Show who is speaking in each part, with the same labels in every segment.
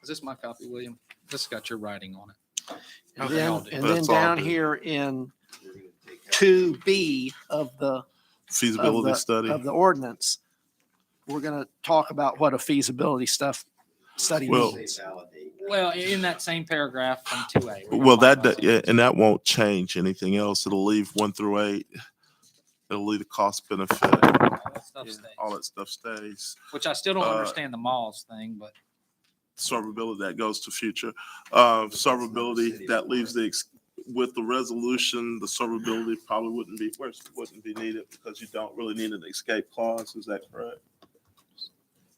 Speaker 1: Is this my copy, William? This got your writing on it.
Speaker 2: And
Speaker 1: Okay, I'll
Speaker 2: then,
Speaker 1: do it.
Speaker 2: and then
Speaker 3: That's all
Speaker 2: down
Speaker 3: good.
Speaker 2: here in two B of the,
Speaker 3: Feasibility
Speaker 2: the-
Speaker 3: study.
Speaker 2: of the ordinance, we're gonna talk about what a feasibility stuff study
Speaker 3: Well-
Speaker 2: means.
Speaker 1: Well, in that same paragraph from two A.
Speaker 3: Well, that, do- yeah, and that won't change anything else. It'll leave one through eight. It'll leave the cost benefit. All that stuff stays.
Speaker 1: Which I still don't
Speaker 3: uh,
Speaker 1: understand the malls thing, but
Speaker 3: Servability, that goes to future. Uh, servability, that leaves the, ex- with the resolution, the servability probably wouldn't be, worse, wouldn't be needed because you don't really need an escape clause. Is that correct?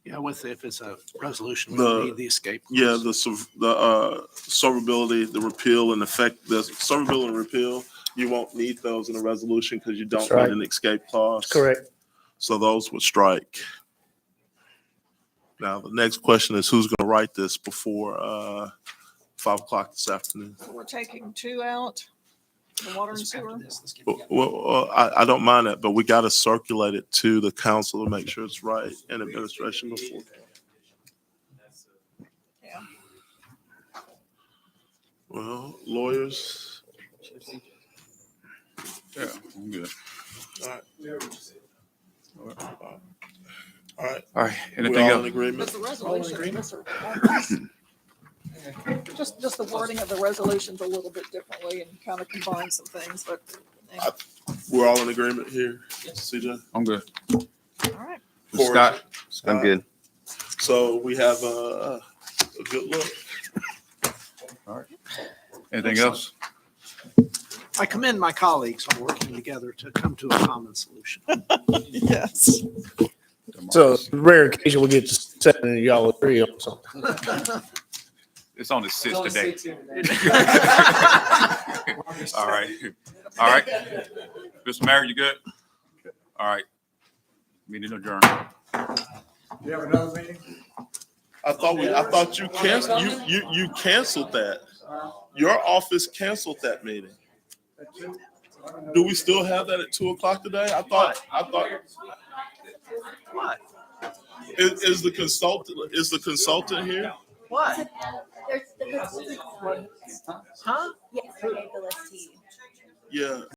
Speaker 2: Yeah, with, if it's a resolution,
Speaker 3: The-
Speaker 2: we need the escape. clause.
Speaker 3: Yeah, the, serv- the, uh, servability, the repeal and effect, the servability and repeal, you won't need those in a resolution because you don't
Speaker 4: That's right.
Speaker 3: need an escape clause.
Speaker 4: Correct.
Speaker 3: So those would strike. Now, the next question is who's gonna write this before, uh, five o'clock this afternoon?
Speaker 5: We're taking two out, the water and sewer.
Speaker 3: Well, Well, I, I don't mind that, but we gotta circulate it to the council to make sure it's right and administration before.
Speaker 5: Yeah.
Speaker 3: Well, lawyers,
Speaker 6: Yeah, I'm good.
Speaker 3: all right,
Speaker 6: All right,
Speaker 3: we're
Speaker 6: anything
Speaker 3: all in
Speaker 6: else?
Speaker 3: agreement?
Speaker 5: But the resolution, that's a- just, just the wording of the resolution's a little bit differently and kind of combines some things, but,
Speaker 3: We're all in agreement here, CJ?
Speaker 6: I'm good.
Speaker 5: all right.
Speaker 6: Scott?
Speaker 3: I'm good. So we have a, a good look.
Speaker 6: Anything else?
Speaker 2: I commend my colleagues on working together to come to a common solution.
Speaker 5: Yes.
Speaker 4: So rare occasion we get to seven and y'all agree on something.
Speaker 6: It's on the sixth today. All right, all right. Mr. Mayor, you good? All right. Meeting adjourned.
Speaker 7: You have another meeting?
Speaker 3: I thought we, I thought you canceled, you, you, you canceled that. Your office canceled that meeting. Do we still have that at two o'clock today? I thought, I thought. Is, is the consultant, is the consultant here?
Speaker 2: What?
Speaker 8: There's the list.
Speaker 2: Huh?
Speaker 8: Yes, I gave the list to you.
Speaker 3: Yeah.